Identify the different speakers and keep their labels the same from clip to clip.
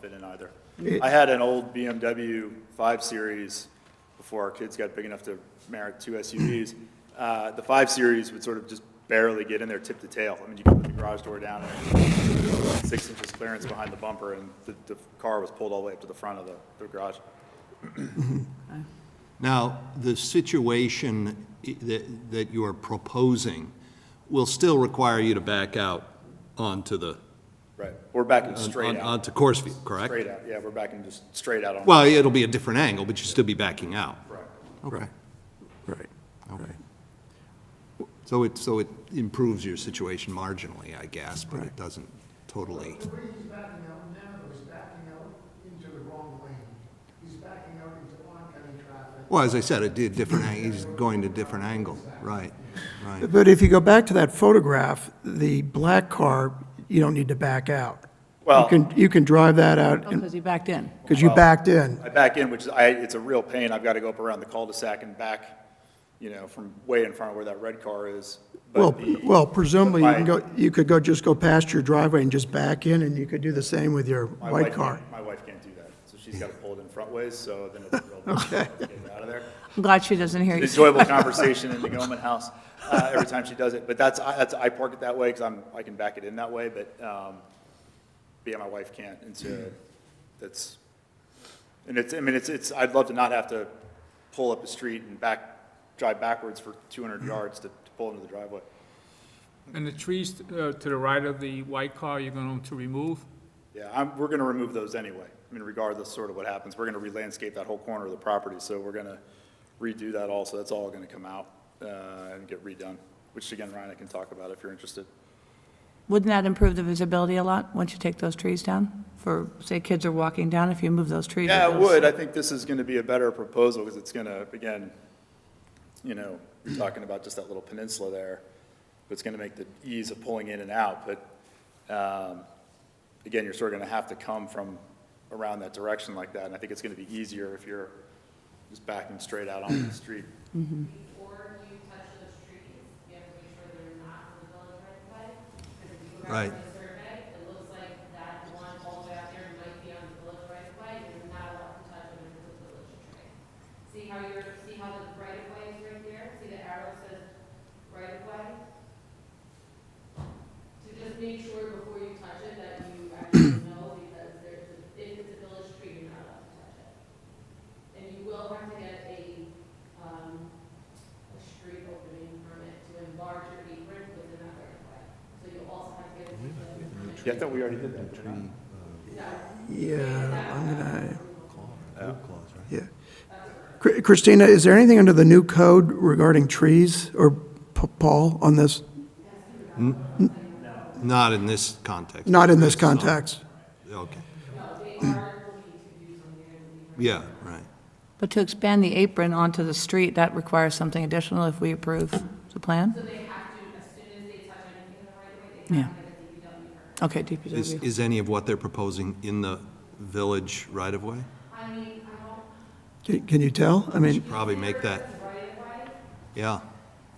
Speaker 1: been in either.
Speaker 2: It-
Speaker 1: I had an old BMW 5 Series before our kids got big enough to merit two SUVs. Uh, The 5 Series would sort of just barely get in there tip to tail. I mean, you could put the garage door down and six inches clearance behind the bumper, and the, the car was pulled all the way up to the front of the, the garage.
Speaker 3: Now, the situation i- that, that you are proposing will still require you to back out onto the,
Speaker 1: Right. We're backing
Speaker 3: on-
Speaker 1: straight out,
Speaker 3: onto Coursefield, correct?
Speaker 1: straight out. Yeah, we're backing just straight out on.
Speaker 3: Well, it'll be a different angle, but you'll still be backing out.
Speaker 1: Correct.
Speaker 3: Okay.
Speaker 2: Right, right.
Speaker 3: So it, so it improves your situation marginally, I guess, but it
Speaker 2: Right.
Speaker 3: doesn't totally.
Speaker 4: The way he's backing out now is backing out into the wrong lane. He's backing out into oncoming traffic.
Speaker 3: Well, as I said, it did different, ang- he's going to different angle, right, right.
Speaker 2: But if you go back to that photograph, the black car, you don't need to back out. You
Speaker 1: Well-
Speaker 2: can, you can drive that out,
Speaker 5: Because he backed in.
Speaker 2: because you backed in.
Speaker 1: I back in, which is, I, it's a real pain. I've got to go up around the cul-de-sac and back, you know, from way in front of where that red car is. But
Speaker 2: Well,
Speaker 1: the-
Speaker 2: well, presumably, you can
Speaker 1: but my-
Speaker 2: go, you could go, just go past your driveway and just back in, and you could do the same with your
Speaker 1: my
Speaker 2: white
Speaker 1: wife
Speaker 2: car.
Speaker 1: can't- My wife can't do that, so she's got to pull it in front ways, so then it's a real. Get out of there.
Speaker 5: I'm glad she doesn't hear you.
Speaker 1: Enjoyable conversation in the Goman house, uh, every time she does it. But that's, I, that's, I park it that way because I'm, I can back it in that way, but, um, but yeah, my wife can't, and so that's, and it's, I mean, it's, it's, I'd love to not have to pull up the street and back, drive backwards for two hundred yards to, to pull into the driveway.
Speaker 6: And the trees uh, to the right of the white car, you're going to remove?
Speaker 1: Yeah, I'm, we're gonna remove those anyway. I mean, regardless sort of what happens, we're gonna re-landscape that whole corner of the property, so we're gonna redo that also. That's all gonna come out, uh, and get redone, which again, Ryan, I can talk about if you're interested.
Speaker 5: Wouldn't that improve the visibility a lot, once you take those trees down? For, say, kids are walking down, if you move those trees.
Speaker 1: Yeah, it
Speaker 5: those-
Speaker 1: would. I think this is gonna be a better proposal, because it's gonna, again, you know, you're talking about just that little peninsula there. It's gonna make the ease of pulling in and out, but, um, again, you're sort of gonna have to come from around that direction like that, and I think it's gonna be easier if you're just backing straight out onto the street.
Speaker 7: before you touch those trees, you have to make sure they're not in the village right of way. Because if you go
Speaker 3: Right.
Speaker 7: back to the survey, it looks like that one all the way out there might be on the village right of way, and you're not allowed to touch it because it's a village tree. See how your, see how the right of way is right there? See the arrow says right of way? So just make sure before you touch it that you actually know, because there's, a- if it's a village tree, you're not allowed to touch it. And you will have to get a, um, a street opening permit to enlarge your apron with another way. So you also have to get a detailed permit.
Speaker 1: Yeah, I thought we already did that. didn't we?
Speaker 2: Yeah, I'm gonna, yeah. Chr- Christina, is there anything under the new code regarding trees, or P- Paul, on this?
Speaker 3: Not in this context.
Speaker 2: Not in this context.
Speaker 3: Okay. Yeah, right.
Speaker 5: But to expand the apron onto the street, that requires something additional if we approve the plan? So they have to, as soon as they touch anything in the right way, they have
Speaker 3: Is,
Speaker 5: to get a DPW Okay, DPW.
Speaker 3: is any of what they're proposing in the village right-of-way?
Speaker 2: Can can you tell? I mean,
Speaker 3: Probably make that. Yeah,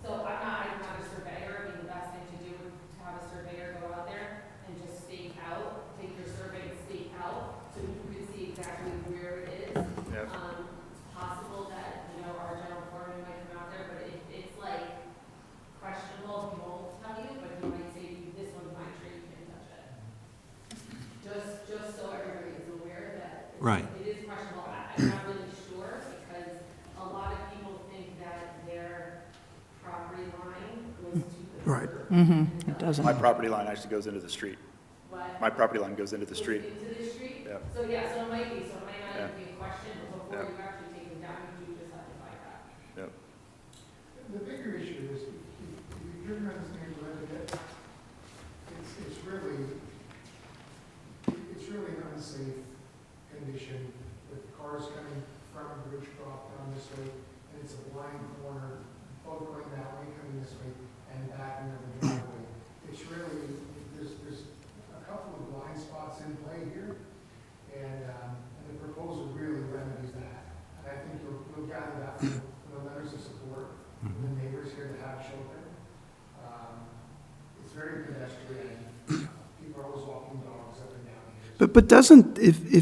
Speaker 7: So I'm not, I'm not a surveyor, I mean, the best thing to do would to have a surveyor go out there and just stake out, take your survey and stake out, so you can see exactly where it is.
Speaker 1: Yeah.
Speaker 7: Um, it's possible that, you know, our general foreman might come out there, but if it's like questionable, he won't tell you, but he might say, this one's my tree, you can't touch it. Just, just so everybody is aware that it's-
Speaker 3: Right.
Speaker 7: it is questionable. I- I'm not really sure because a lot of people think that their property line goes to the
Speaker 2: right.
Speaker 5: Mm-hmm, it
Speaker 1: My
Speaker 5: doesn't.
Speaker 1: property line actually goes into the street. My property line goes into the street.
Speaker 7: into the street.
Speaker 1: Yeah.
Speaker 7: So yeah, so it might be, so it might not
Speaker 1: Yeah.
Speaker 7: even be a question, but before
Speaker 1: Yeah.
Speaker 7: you actually take them down, you do decide to buy that.
Speaker 1: Yep.
Speaker 4: The bigger issue is, if if you're not saying that, it's, it's really, it's really an unsafe condition with cars coming from Ridgecroft down this way, and it's a blind corner, both going that way, coming this way, and back into the driveway. It's really, there's, there's a couple of blind spots in play here, and, um, and the proposal really remedies that. And I think you'll, you'll gather that from from the letters of support from the neighbors here that have children. Um, It's very pedestrian. People are always walking dogs up and down here. so-
Speaker 2: But, but doesn't, if, if